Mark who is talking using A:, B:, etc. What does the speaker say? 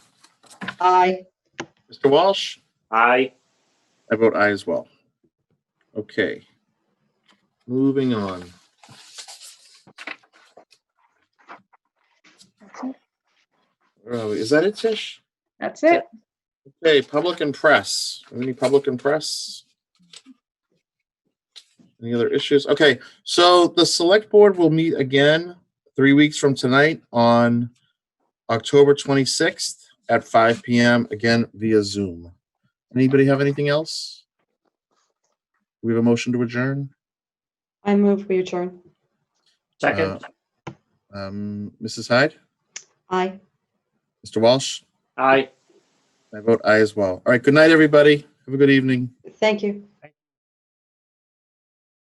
A: Aye.
B: Mr. Walsh?
C: Aye.
B: I vote aye as well. Okay. Moving on. Where are we? Is that it, Tish?
A: That's it.
B: Okay, public and press. Any public and press? Any other issues? Okay, so the select board will meet again three weeks from tonight on October 26th at 5 PM, again via Zoom. Anybody have anything else? We have a motion to adjourn.
A: I move we adjourn.
C: Second.
B: Um, Mrs. Hyde,
A: Aye.
B: Mr. Walsh,
C: Aye.
B: I vote aye as well. All right, good night, everybody. Have a good evening.
A: Thank you.